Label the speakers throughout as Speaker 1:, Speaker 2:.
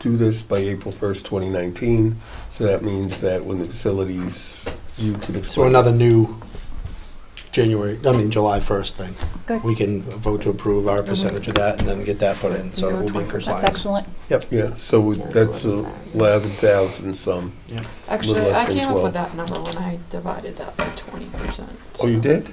Speaker 1: do this by April 1st, 2019. So that means that when the facilities, you can explain.
Speaker 2: So another new January, I mean, July 1st thing.
Speaker 3: Good.
Speaker 2: We can vote to approve our percentage of that and then get that put in, so it will be in
Speaker 3: That's
Speaker 2: compliance.
Speaker 3: excellent.
Speaker 1: Yeah, so we- that's a 11,000 some.
Speaker 4: Actually,
Speaker 1: Little
Speaker 4: I
Speaker 1: less than
Speaker 4: came up
Speaker 1: 12.
Speaker 4: with that number when I divided that by twenty percent.
Speaker 1: Oh, you did?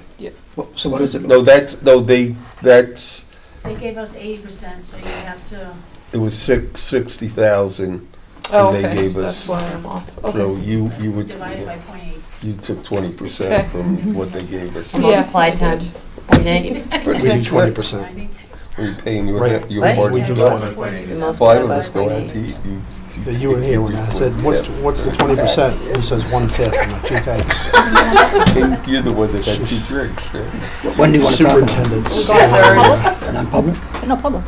Speaker 5: Well, So what is it?
Speaker 1: No, that's, no, they, that's,
Speaker 6: They gave us eighty percent, so you have to,
Speaker 1: it was six, 60,000.
Speaker 4: Oh,
Speaker 1: And they
Speaker 4: okay,
Speaker 1: gave us-
Speaker 4: that's why I'm off.
Speaker 1: So
Speaker 4: Okay.
Speaker 1: you, you would,
Speaker 6: divide it by point eight.
Speaker 1: you took
Speaker 4: Okay.
Speaker 1: 20% from what they gave us.
Speaker 4: Yeah. Yes, I
Speaker 3: Multiply
Speaker 4: did.
Speaker 3: times point eight.
Speaker 2: We
Speaker 1: But
Speaker 2: do
Speaker 1: we-
Speaker 2: twenty
Speaker 6: I
Speaker 2: percent.
Speaker 6: think
Speaker 1: We're paying your,
Speaker 2: Right.
Speaker 1: your
Speaker 3: Right.
Speaker 1: part.
Speaker 2: We do
Speaker 1: Five
Speaker 2: that.
Speaker 3: Multiply
Speaker 1: of
Speaker 3: by
Speaker 1: us go out
Speaker 3: point
Speaker 1: to
Speaker 3: eight.
Speaker 1: eat. You-
Speaker 2: You were here when I said, what's, what's the twenty percent? He says one fifth. I'm like, gee, thanks.
Speaker 1: And You're the one that had two drinks, right?
Speaker 5: When do you want to talk about
Speaker 2: Superintendents.
Speaker 5: it? Non-public?
Speaker 3: Third. No problem.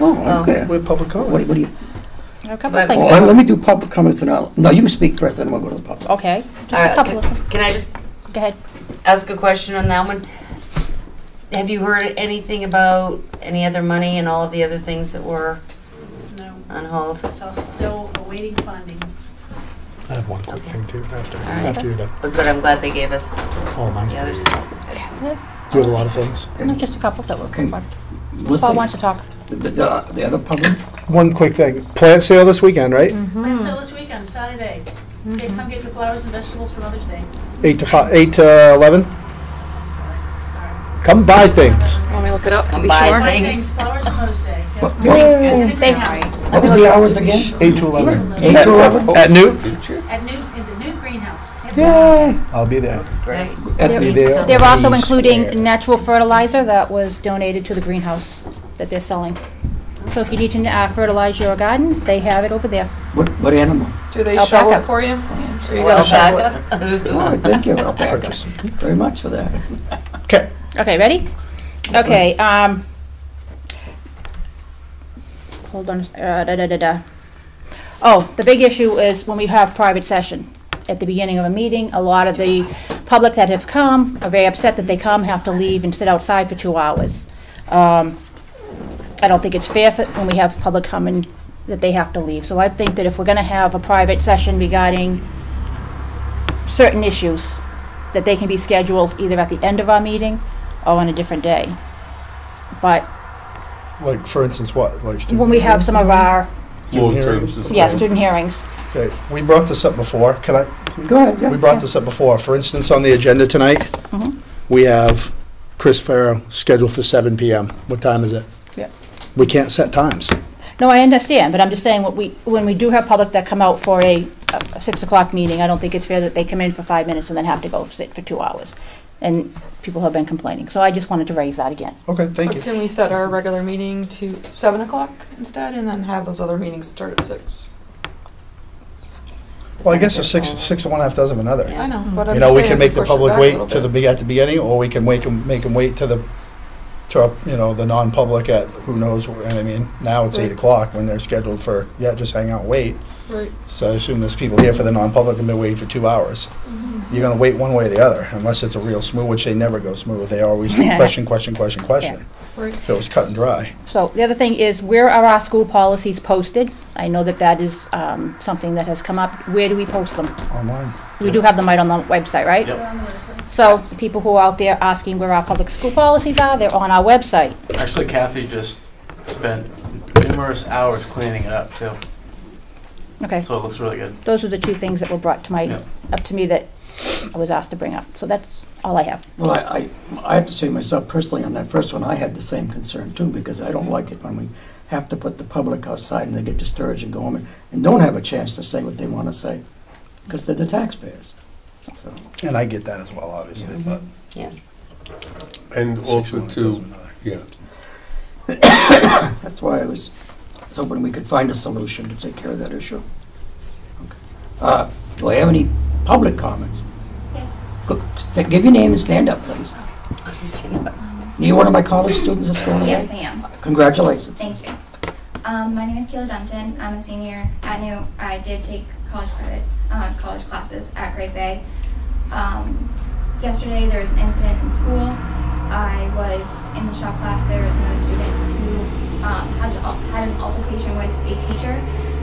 Speaker 5: Oh, okay.
Speaker 2: With public
Speaker 5: What do
Speaker 2: comment.
Speaker 5: what do you,
Speaker 3: A couple of
Speaker 5: well,
Speaker 3: things.
Speaker 5: let me do public comments and I'll, no, you can speak first, then we'll go to the public.
Speaker 3: Okay, just
Speaker 7: All right,
Speaker 5: Uh,
Speaker 3: a couple of them.
Speaker 7: Can I just
Speaker 3: Go ahead.
Speaker 7: ask a question on that one? Have you heard anything about any other money and all of the other things that were
Speaker 6: No,
Speaker 7: on hold?
Speaker 6: it's all still awaiting funding.
Speaker 2: I have one quick thing too, after,
Speaker 7: right.
Speaker 2: after you're done.
Speaker 7: But, but I'm glad they gave us
Speaker 2: Oh, mine's
Speaker 7: the others.
Speaker 2: Do you have a lot of things?
Speaker 3: No, just a couple that were
Speaker 5: Okay.
Speaker 3: covered. Paul wants
Speaker 5: Melissa,
Speaker 3: to talk.
Speaker 5: the, the, the other public,
Speaker 2: One quick thing. Plant sale this weekend, right?
Speaker 3: Mm.
Speaker 6: Plant sale this weekend, Saturday. They come get your flowers and vegetables for Mother's Day.
Speaker 2: Eight to five, eight to eleven? Come buy things.
Speaker 4: Want me to look it up to
Speaker 7: Come
Speaker 4: be
Speaker 7: by.
Speaker 4: sure?
Speaker 6: Buy
Speaker 7: Thanks.
Speaker 6: things, flowers for Mother's Day. yeah.
Speaker 5: What- what
Speaker 6: Anything
Speaker 3: Thanks.
Speaker 6: else?
Speaker 5: what was the hours again?
Speaker 2: Eight to eleven.
Speaker 5: Eight to eleven?
Speaker 1: Oh,
Speaker 2: At noon?
Speaker 6: At new, in the new greenhouse.
Speaker 2: Yay! I'll be there.
Speaker 7: Looks great.
Speaker 5: At
Speaker 3: They're-
Speaker 5: the,
Speaker 2: there.
Speaker 3: They're also
Speaker 2: Please share.
Speaker 3: including natural fertilizer that was donated to the greenhouse that they're selling. So if you need to uh, fertilize your gardens, they have it over there.
Speaker 5: what, what animal?
Speaker 4: Do they
Speaker 3: Alpaca.
Speaker 4: shovel it for you? Or you gotta shovel it?
Speaker 5: All
Speaker 7: Alpaca?
Speaker 5: right, thank you, Rebecca, very much for that.
Speaker 2: Okay.
Speaker 3: Okay, ready? Okay, um, hold on, uh, da, da, da, da. Oh, the big issue is when we have private session. At the beginning of a meeting, a lot of the public that have come are very upset that they come, have to leave and sit outside for two hours. Um, I don't think it's fair for, when we have public coming, that they have to leave. So I think that if we're gonna have a private session regarding certain issues, that they can be scheduled either at the end of our meeting or on a different day. But
Speaker 2: Like, for instance, what, like student?
Speaker 3: when we have some of our,
Speaker 2: Student hearings?
Speaker 3: yeah, student hearings,
Speaker 2: Okay, we brought this up before. Can I,
Speaker 5: Go ahead, yeah.
Speaker 2: We brought this up before. For instance, on the agenda tonight,
Speaker 3: Mhm.
Speaker 2: we have Chris Farrow scheduled for seven PM. What time is it?
Speaker 3: Yeah.
Speaker 2: We can't set times.
Speaker 3: no, I understand, but I'm just saying, what we, when we do have public that come out for a, a six o'clock meeting, I don't think it's fair that they come in for five minutes and then have to go sit for two hours. And people have been complaining, so I just wanted to raise that again.
Speaker 2: Okay, thank
Speaker 4: Or can we set our regular meeting to seven o'clock instead and then have those other meetings start at six?
Speaker 2: Well, I guess there's six, six of one, half dozen of another.
Speaker 4: I know, but I'm
Speaker 2: You know,
Speaker 4: just
Speaker 2: we can
Speaker 4: saying if
Speaker 2: make the
Speaker 4: push it
Speaker 2: public
Speaker 4: back a
Speaker 2: wait
Speaker 4: little
Speaker 2: to the,
Speaker 4: bit.
Speaker 2: be- at the beginning, or we can wait, 'em- make them wait to the, to, our, you know, the non-public at, who knows, wh- and I mean, now it's eight
Speaker 4: Right.
Speaker 2: o'clock when they're scheduled for, yeah, just hang out, wait.
Speaker 4: Right.
Speaker 2: So I assume there's people here for the non-public and been waiting for two hours.
Speaker 4: Mm-hmm.
Speaker 2: You're gonna wait one way or the other, unless it's a real smooth, which they never go smooth. They always question, question, question, question.
Speaker 4: Right.
Speaker 2: So it's cut and dry.
Speaker 3: So the other thing is, where are our school policies posted? I know that that is, um, something that has come up, where do we post them?
Speaker 2: Online.
Speaker 3: We do have them right on the website, right?
Speaker 6: They're on the website.
Speaker 3: So people who are out there asking where our public school policies are, they're on our website.
Speaker 8: Actually, Kathy just spent numerous hours cleaning it up too,
Speaker 3: Okay,
Speaker 8: so it looks really good.
Speaker 3: those are the two things that were brought to my,
Speaker 8: Yeah.
Speaker 3: up to me that I was asked to bring up. So that's all I have.
Speaker 5: Well, I, I, I have to say myself personally, on that first one, I had the same concern too, because I don't like it when we have to put the public outside and they get discouraged and go home and- and don't have a chance to say what they want to say, because they're the taxpayers. So,
Speaker 2: And I get that as well, obviously, but.
Speaker 1: And Mm-hmm. also too, yeah,
Speaker 5: that's why I was hoping we could find a solution to take care of that issue. Okay. Uh, Do I have any public comments?
Speaker 6: Yes.
Speaker 5: Go- st- Give your name and stand up, please. Are you one of my college students that's going away?
Speaker 9: Yes, I am.
Speaker 5: Congratulations.
Speaker 9: Thank you. Um, my name is Kayla Dunton. I'm a senior at New. I did take college credits, uh, college classes at Great Bay. Um, yesterday there was an incident in school. I was in the shop class. There was another student who um, had, to, al- had an altercation with a teacher,